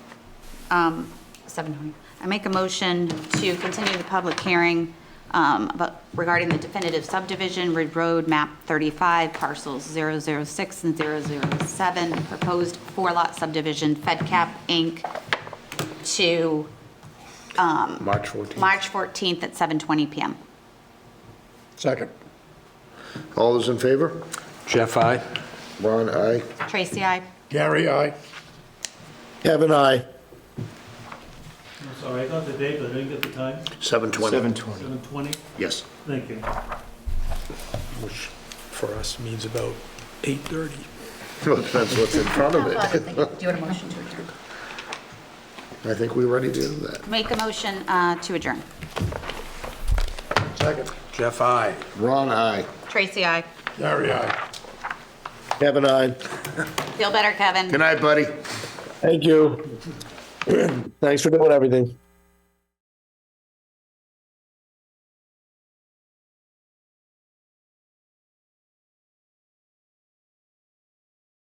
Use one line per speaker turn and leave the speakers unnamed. um, 7:20. I make a motion to continue the public hearing um, about- regarding the definitive subdivision, Ridge Road, map 35, parcels 006 and 007, proposed four-lot subdivision, FedCap Inc., to
March 14th.
March 14th at 7:20 PM.
Second.
All those in favor?
Jeff, I.
Ron, aye.
Tracy, I.
Gary, I.
Kevin, aye.
I'm sorry, I got the date, but I didn't get the time.
7:20.
7:20?
Yes.
Thank you.
which for us means about 8:30.
Well, it depends what's in front of it.
Do you want a motion to adjourn?
I think we're ready to do that.
Make a motion uh, to adjourn.
Second.
Jeff, I.
Ron, aye.
Tracy, I.
Gary, I.
Kevin, aye.
Feel better, Kevin.
Good night, buddy.
Thank you. Thanks for doing everything.